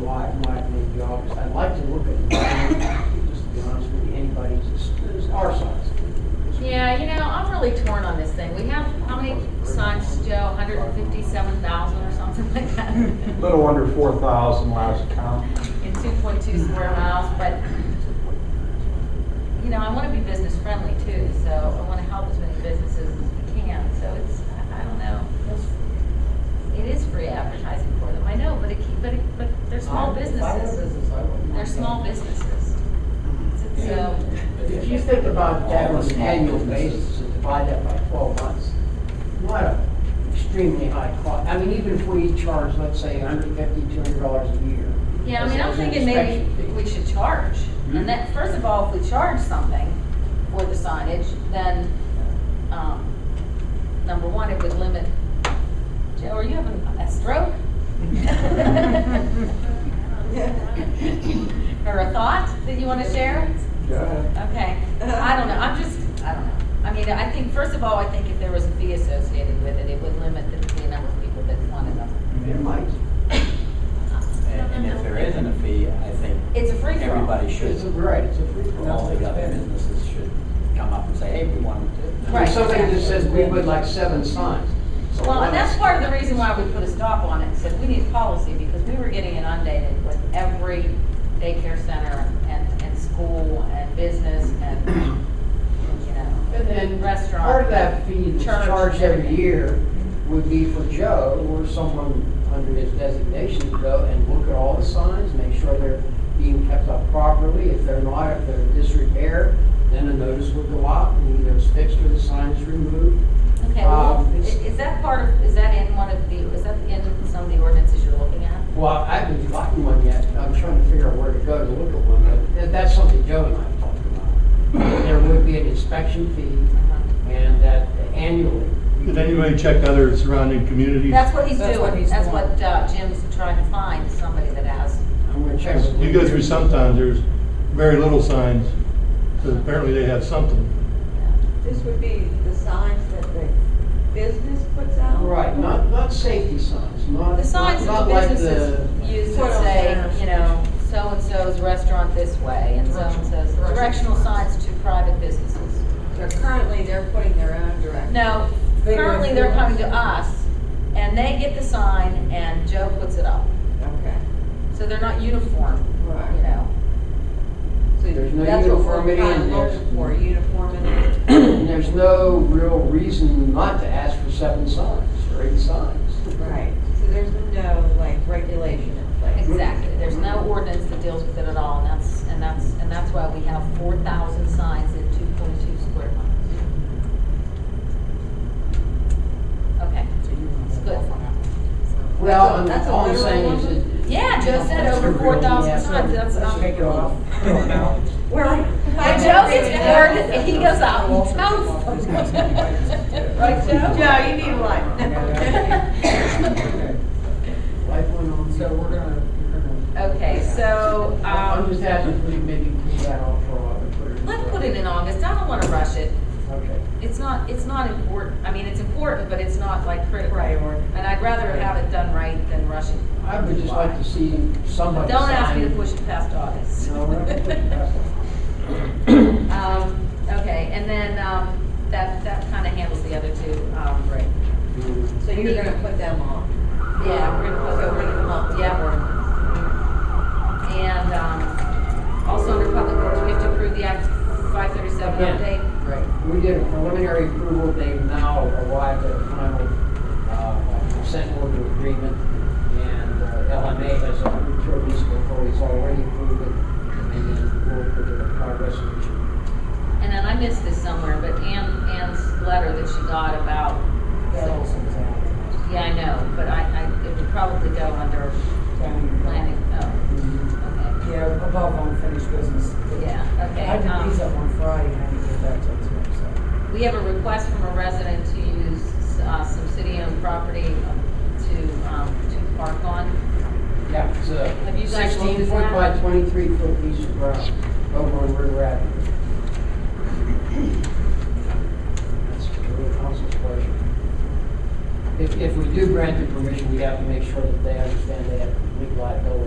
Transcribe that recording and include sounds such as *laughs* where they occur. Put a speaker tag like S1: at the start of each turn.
S1: why it might need the office. I'd like to look at, mine, just to be honest with you, anybody's, it's, it's our size.
S2: Yeah, you know, I'm really torn on this thing. We have, how many signs, Joe? Hundred and fifty-seven thousand or something like that? *laughs*
S3: A
S2: In
S3: Little under four thousand last count.
S2: two point two square miles, but, you know, I wanna be business friendly too, so I wanna help as many businesses as we can, so it's, I I don't know. It is free advertising for them, I know, but it keep, but, it- but they're
S1: If I
S2: small
S1: were a
S2: businesses.
S1: business, I wouldn't mind
S2: They're small
S1: that.
S2: businesses. So,
S1: If you think about that on an annual basis, and divide that by twelve months, what a extremely high cost. I mean, even if we charge, let's say, $150, 200 dollars a year.
S2: Yeah, I mean, I'm
S1: as an
S2: thinking maybe
S1: inspection fee.
S2: we should charge.
S1: Hmm?
S2: And that, first of all, if we charge something for the signage, then, um, number one, it would limit. Joe, are you having a stroke? Or a thought that you want to share?
S3: Yeah.
S2: Okay, I don't know, I'm just, I don't know. I mean, I think, first of all, I think if there was a fee associated with it, it would limit the, the number of people that wanted them.
S1: It might.
S4: And and if there isn't a fee, I think
S2: It's a free for all.
S4: everybody should,
S1: It's a, right, it's a free. for all.
S4: all the other businesses should come up and say, hey, we wanted to.
S2: Right.
S1: If somebody just says, we would like seven signs. so
S2: Well, and that's
S1: one-
S2: part of the reason why we put a stop on it, said we need policy, because we were getting inundated with every daycare center and, and school and business and, you know,
S1: And then
S2: Restaurant.
S1: Part of that fee that's
S2: Church.
S1: charged every year would be for Joe or someone under his designation to go and look at all the signs, make sure they're being kept up properly. If they're not, if they're in disrepair, then a notice would go out and either it's fixed or the sign is removed.
S2: okay, well,
S1: Um,
S2: i-
S1: it's-
S2: is that part of, is that in one of the, is that in some of the ordinances you're looking at?
S1: Well, I haven't gotten one yet. I'm trying to figure out where to go to look at one, but that- that's something Joe and I talked about. There would be an inspection fee
S2: Uh-huh.
S1: and that annually.
S5: Did anybody check other surrounding communities?
S2: That's what he's
S6: That's what
S2: doing,
S6: he's
S2: that's
S6: doing.
S2: what uh, Jim's trying to find, is somebody that has,
S1: I'm gonna check. with
S5: You go through some towns, there's very little signs, so apparently they have something.
S6: This would be the signs that the business puts out?
S1: Right, not, not safety signs, not.
S2: the signs
S1: not
S2: that the
S1: like
S2: businesses use
S6: Put
S2: that say,
S6: on there.
S2: you know, so-and-so's restaurant this way, and so-and-so's, directional signs to private businesses.
S6: They're currently, they're putting their own direct.
S2: No,
S6: They go
S2: currently they're
S6: through
S2: coming to
S6: us.
S2: us, and they get the sign, and Joe puts it up.
S6: Okay,
S2: So they're not uniform, you
S6: right.
S2: know.
S6: So
S1: There's no
S6: that's what we're
S1: uniformity
S6: kind
S1: in
S6: of
S1: there.
S6: looking for, uniformity.
S1: And *clears throat* There's no real reason not to ask for seven signs or eight signs.
S6: Right, so there's no like regulation in place.
S2: Exactly, there's no ordinance that deals with it at all, and that's, and that's, and that's why we have four thousand signs in two point two square miles. Okay, it's good.
S1: Well, and
S6: that's a
S1: all I'm
S6: literal
S1: saying is
S6: one?
S1: that.
S2: Yeah, Joe said
S1: That's a
S2: over
S1: real-
S2: four thousand
S1: yeah, so
S2: signs, that's
S1: let's
S2: not.
S1: take it off.
S6: We're like.
S2: And Joe gets bored, and he goes out and counts. them. Right, *laughs* Joe?
S6: Joe, you need one.
S1: Life went on. So we're gonna, we're gonna.
S2: Okay, so,
S1: I'm just
S2: um,
S1: asking if we can maybe pull that off for a while and put it in.
S2: let's put it in August, I don't wanna rush it.
S1: Okay.
S2: It's not, it's not important, I mean, it's important, but it's not like critical.
S6: Priority.
S2: And I'd rather have it done right than rush it.
S1: I would just like to see somebody.
S2: Don't ask me to
S1: sign-
S2: push it past August.
S1: No, we're not gonna push it past that.
S2: *laughs* Um, okay, and then, um, that, that kinda handles the other two, um, right.
S6: So you're gonna put them on?
S2: Yeah, we're gonna put over the month, yeah, ordinance. And, um, also under public works, we have to approve the Act five thirty-seven
S1: Yeah.
S2: update.
S1: Right, we did a preliminary approval, they've now arrived at a final uh, consent order agreement, and uh, LMA has a hundred thirties before he's already approved it, and then we'll put it in our resolution.
S2: And then I missed this somewhere, but Ann, Ann's letter that she got about, yeah, I know, but I, I, it would probably go under planning, oh, okay,
S7: Yeah, above unfinished business.
S2: yeah, okay.
S7: I did these
S2: um,
S7: up on Friday, and I didn't get back to it today, so.
S2: We have a request from a resident to use, uh, some city-owned property to, um, to park on.
S1: Yeah, it's
S2: Have
S1: a
S2: you guys looked at
S1: sixteen foot
S2: that?
S1: by twenty-three foot piece of ground over on River Avenue. That's the council's pleasure. If, if we do grant the permission, we have to make sure that they understand they have complete liability.